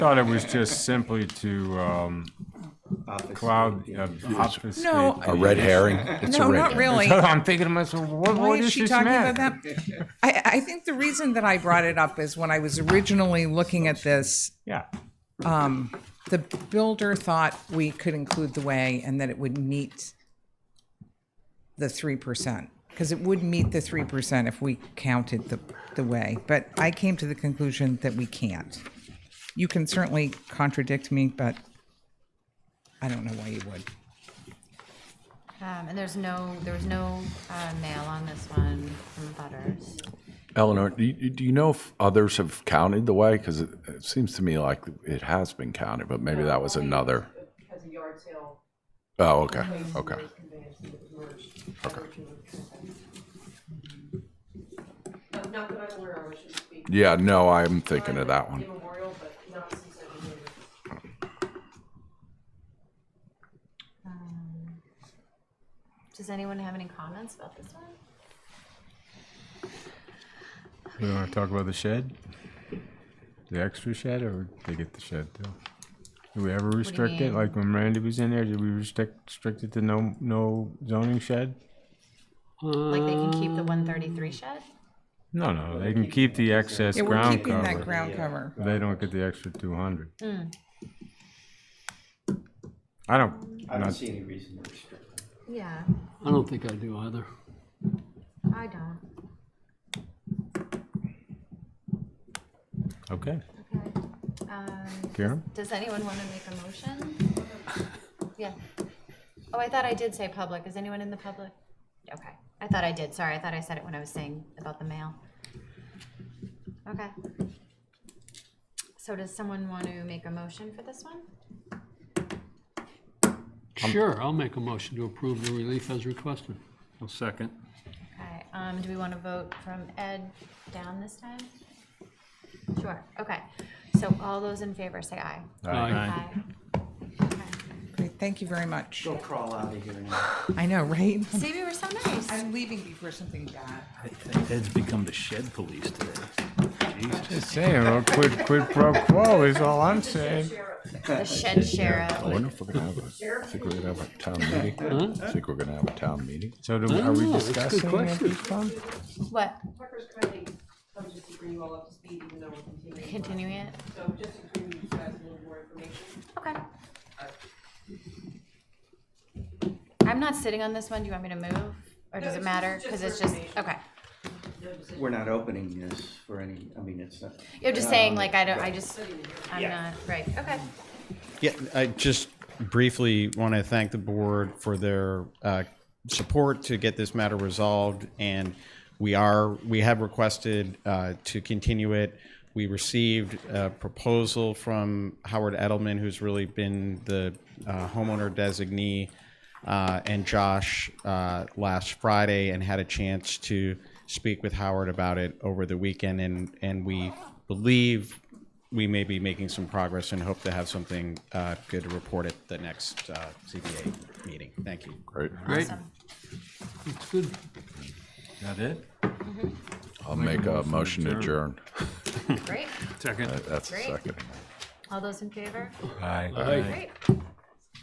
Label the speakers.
Speaker 1: Thought it was just simply to, um, cloud, uh, obfuscate.
Speaker 2: No,
Speaker 3: A red herring? Oh, It's a
Speaker 2: no,
Speaker 3: red
Speaker 2: not
Speaker 3: herring.
Speaker 2: really.
Speaker 1: I'm thinking to myself, what,
Speaker 2: Why
Speaker 1: what
Speaker 2: is
Speaker 1: is
Speaker 2: she
Speaker 1: this
Speaker 2: talking about
Speaker 1: man?
Speaker 2: that? I, I think the reason that I brought it up is when I was originally looking at this,
Speaker 1: Yeah,
Speaker 2: the builder thought we could include the way and that it would meet the three percent. Because it would meet the three percent if we counted the, the way, but I came to the conclusion that we can't. You can certainly contradict me, but I don't know why you would.
Speaker 4: Um, and there's no, there was no, uh, mail on this one from Butters.
Speaker 3: Eleanor, do you, do you know if others have counted the way? Because it, it seems to me like it has been counted, but maybe that was another.
Speaker 5: Because of yard sale.
Speaker 3: Oh, okay, okay.
Speaker 5: Conveyance was merged. Uh, Not that I'm aware of, I shouldn't speak.
Speaker 3: Yeah, no, I'm thinking of that one.
Speaker 5: Immemorial, but not since I've been here.
Speaker 4: Does anyone have any comments about this one?
Speaker 1: you wanna talk about the shed? The extra shed, or they get the shed too? Do we ever restrict it,
Speaker 4: mean?
Speaker 1: like when Randy was in there, did we restrict, restrict it to no, no zoning shed?
Speaker 4: Like they can keep the one thirty-three shed?
Speaker 1: No, no, they can keep the excess
Speaker 2: Yeah, we're
Speaker 1: ground
Speaker 2: keeping that
Speaker 1: cover,
Speaker 2: ground Hmm. cover.
Speaker 1: they don't get the extra two hundred. I don't,
Speaker 6: I don't
Speaker 1: not-
Speaker 6: see any reason to restrict it.
Speaker 4: Yeah,
Speaker 7: I don't think I do either.
Speaker 4: I don't.
Speaker 1: okay,
Speaker 4: Okay. Um,
Speaker 1: Karen?
Speaker 4: does anyone want to make a motion? Yeah. Oh, I thought I did say public. Is anyone in the public? Okay. I thought I did. Sorry, I thought I said it when I was saying about the mail. Okay. So does someone want to make a motion for this one?
Speaker 7: Sure, I'll make a motion to approve the relief as requested.
Speaker 8: I'll second.
Speaker 4: Okay, um, do we want to vote from Ed down this time? Sure, okay. So all those in favor say aye.
Speaker 7: Aye.
Speaker 4: Okay.
Speaker 2: Great, Thank you very much.
Speaker 6: Go crawl out of here now.
Speaker 2: I know, right?
Speaker 4: See, we were so nice.
Speaker 2: I'm leaving before something bad.
Speaker 8: Ed's become the shed police today. Jesus.
Speaker 1: Saying, well, quid, quid pro quo is all I'm saying.
Speaker 4: The shed sheriff.
Speaker 3: I wonder if we're gonna have a, I think we're gonna have a town meeting. I think we're gonna have a town meeting.
Speaker 1: So do, are we
Speaker 7: Oh, that's a good
Speaker 1: discussing it
Speaker 7: question.
Speaker 1: this time?
Speaker 4: What,
Speaker 5: Parker's committee, I'm just to bring you all up to speed, even though we're continuing.
Speaker 4: continuing it?
Speaker 5: So just to give you guys a little more information.
Speaker 4: Okay. I'm not sitting on this one. Do you want me to move? Or does it
Speaker 5: it's
Speaker 4: matter?
Speaker 5: just-
Speaker 4: Because
Speaker 5: just
Speaker 4: it's just,
Speaker 5: information.
Speaker 4: okay.
Speaker 6: We're not opening this for any, I mean, it's not.
Speaker 4: You're just saying, like, I don't, I just, I'm not, right, okay.
Speaker 9: Yeah, I just briefly want to thank the board for their uh, support to get this matter resolved, and we are, we have requested uh, to continue it. We received a proposal from Howard Edelman, who's really been the uh, homeowner designee, uh, and Josh uh, last Friday, and had a chance to speak with Howard about it over the weekend, and, and we believe we may be making some progress and hope to have something uh, good to report at the next uh, CBA meeting. Thank you.
Speaker 3: Great.
Speaker 7: Great,
Speaker 4: Awesome.
Speaker 7: that's good.
Speaker 1: That it?
Speaker 3: I'll make a motion to adjourn.
Speaker 4: Great.
Speaker 8: Second.
Speaker 3: That's a
Speaker 4: Great.
Speaker 3: second.
Speaker 4: All those in favor?
Speaker 1: Aye.
Speaker 4: Great.